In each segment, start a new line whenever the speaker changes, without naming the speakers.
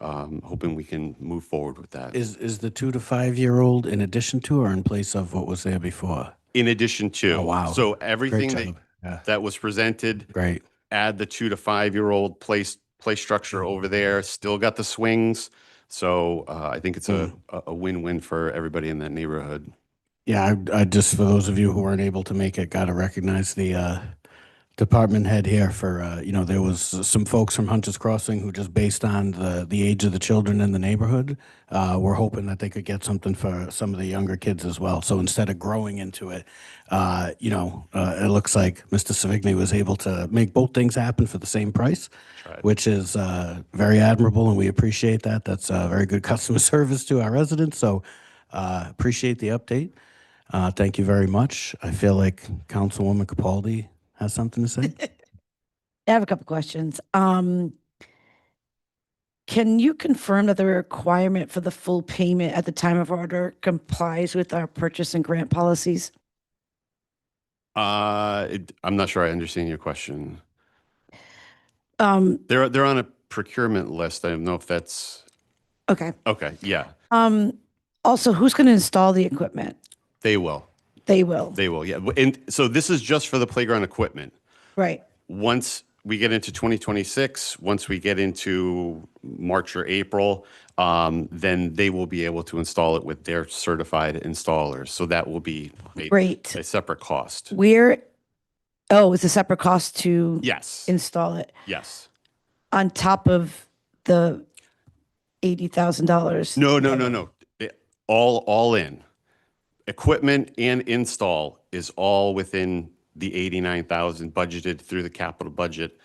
um, hoping we can move forward with that.
Is, is the two to five-year-old in addition to or in place of what was there before?
In addition to.
Oh, wow.
So
Great
everything that,
job. Yeah,
that was presented,
great.
add the two to five-year-old place, play structure
Mm-hmm.
over there, still got the swings. So uh, I think it's a,
Mm.
a a win-win for everybody in that neighborhood.
Yeah, I, I just, for those of you who weren't able to make it, gotta recognize the, uh, department head here for, uh, you know, there was some folks from Hunter's Crossing who just based on the, the age of the children in the neighborhood, uh, were hoping that they could get something for some of the younger kids as well. So instead of growing into it, uh, you know, uh, it looks like Mr. Savigny was able to make both things happen for the same price,
Tried.
which is, uh, very admirable and we appreciate that. That's, uh, very good customer service to our residents. So, uh, appreciate the update. Uh, thank you very much. I feel like Councilwoman Capaldi has something to say.
I have a couple questions. Um, can you confirm that the requirement for the full payment at the time of order complies with our purchase and grant policies?
Uh, it- I'm not sure I understand your question.
Um,
They're, they're on a procurement list. I don't know if that's,
okay.
okay, yeah,
Um, also, who's going to install the equipment?
they will.
They will,
They will, yeah. And so this is just for the playground equipment.
right?
once we get into 2026, once we get into March or April, um, then they will be able to install it with their certified installers. So that will be a,
Great.
a separate cost.
Where, oh, it's a separate cost to
Yes.
install it
Yes.
on top of the $80,000?
No, no, no, no. It- All, all in. Equipment and install is all within the 89,000 budgeted through the capital budget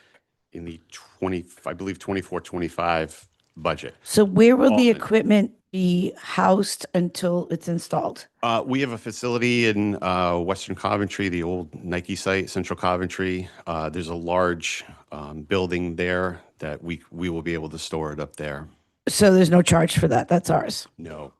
in the 20, I believe 24, 25 budget.
So where will the
Often.
equipment be housed until it's installed?
Uh, we have a facility in uh, Western Coventry, the old Nike site, Central Coventry. Uh, there's a large um, building there that we we will be able to store it up there.
So there's no charge for that. That's ours.
No,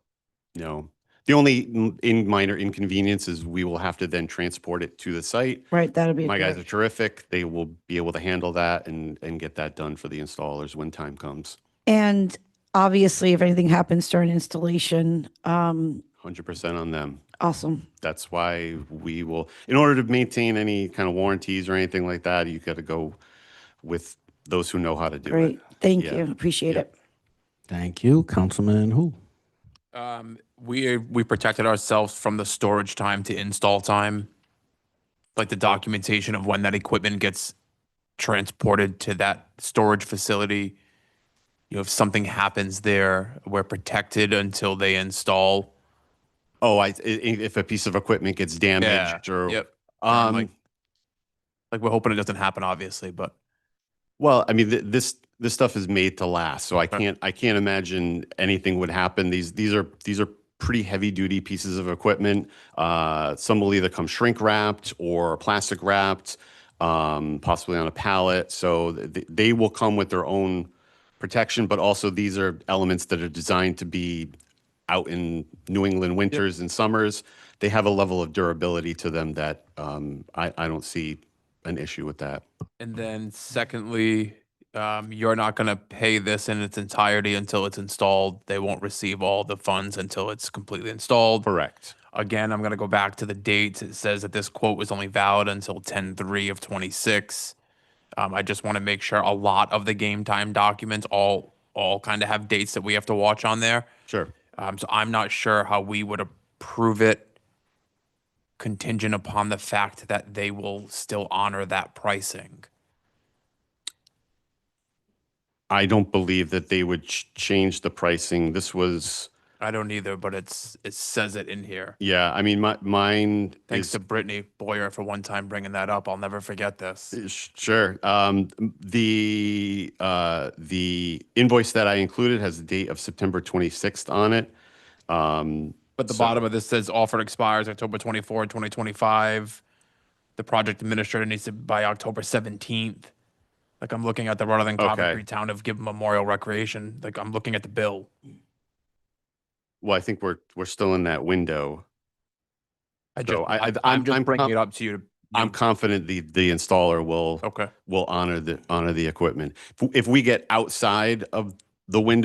no. The only n- in minor inconvenience is we will have to then transport it to the site.
Right, that'll be. a
My guys are
charge.
terrific. They will be able to handle that and and get that done for the installers when time comes.
And obviously, if anything happens during installation, um,
100% on them.
awesome.
that's why we will in order to maintain any kind of warranties or anything like that you got to go with those who know how to do
Great.
it
Thank
Yeah.
you. Appreciate
Yep.
it.
Thank you, Councilman Hu.
Um, we, we protected ourselves from the storage time to install time. Like the documentation of when that equipment gets transported to that storage facility. You know, if something happens there, we're protected until they install.
oh i i- if a piece of equipment gets damaged or
Yep.
um
like- Like, we're hoping it doesn't happen, obviously, but
well i mean th- this this stuff is made to last so i
Right.
can't i can't imagine anything would happen these these are these are pretty heavy duty pieces of equipment uh some will either come shrink wrapped or plastic wrapped um possibly on a pallet so th- th- they will come with their own protection, but also these are elements that are designed to be out in New England winters and summers. They have a level of durability to them that um, I, I don't see an issue with that.
And then secondly, um, you're not gonna pay this in its entirety until it's installed. They won't receive all the funds until it's completely installed.
Correct.
Again, I'm gonna go back to the dates. It says that this quote was only valid until ten three of twenty-six. Um, I just wanna make sure a lot of the game time documents all, all kind of have dates that we have to watch on there.
Sure.
Um, so I'm not sure how we would approve it contingent upon the fact that they will still honor that pricing.
I don't believe that they would ch- change the pricing. This was,
I don't either, but it's it says it in here.
yeah, I mean, my, mine
Thanks
is
to Brittany Boyer for one time bringing that up. I'll never forget this.
Uh, sh- Sure. Um, m- The, uh, the invoice that I included has the date of September 26th on it. Um,
But the
So-
bottom of this says offer expires October 24, 2025. The project administrator needs to by October 17th. Like I'm looking at the rather than
Okay.
Coventry Town of Gibb Memorial Recreation. Like I'm looking at the bill.
Well, I think we're, we're still in that window.
I just,
So I- I-
I, am
I'm-
just
I'm
bringing
com-
it up to you. To,
I'm
you-
confident the, the installer will,
okay.
will honor the, honor the equipment. If- If we get outside of the window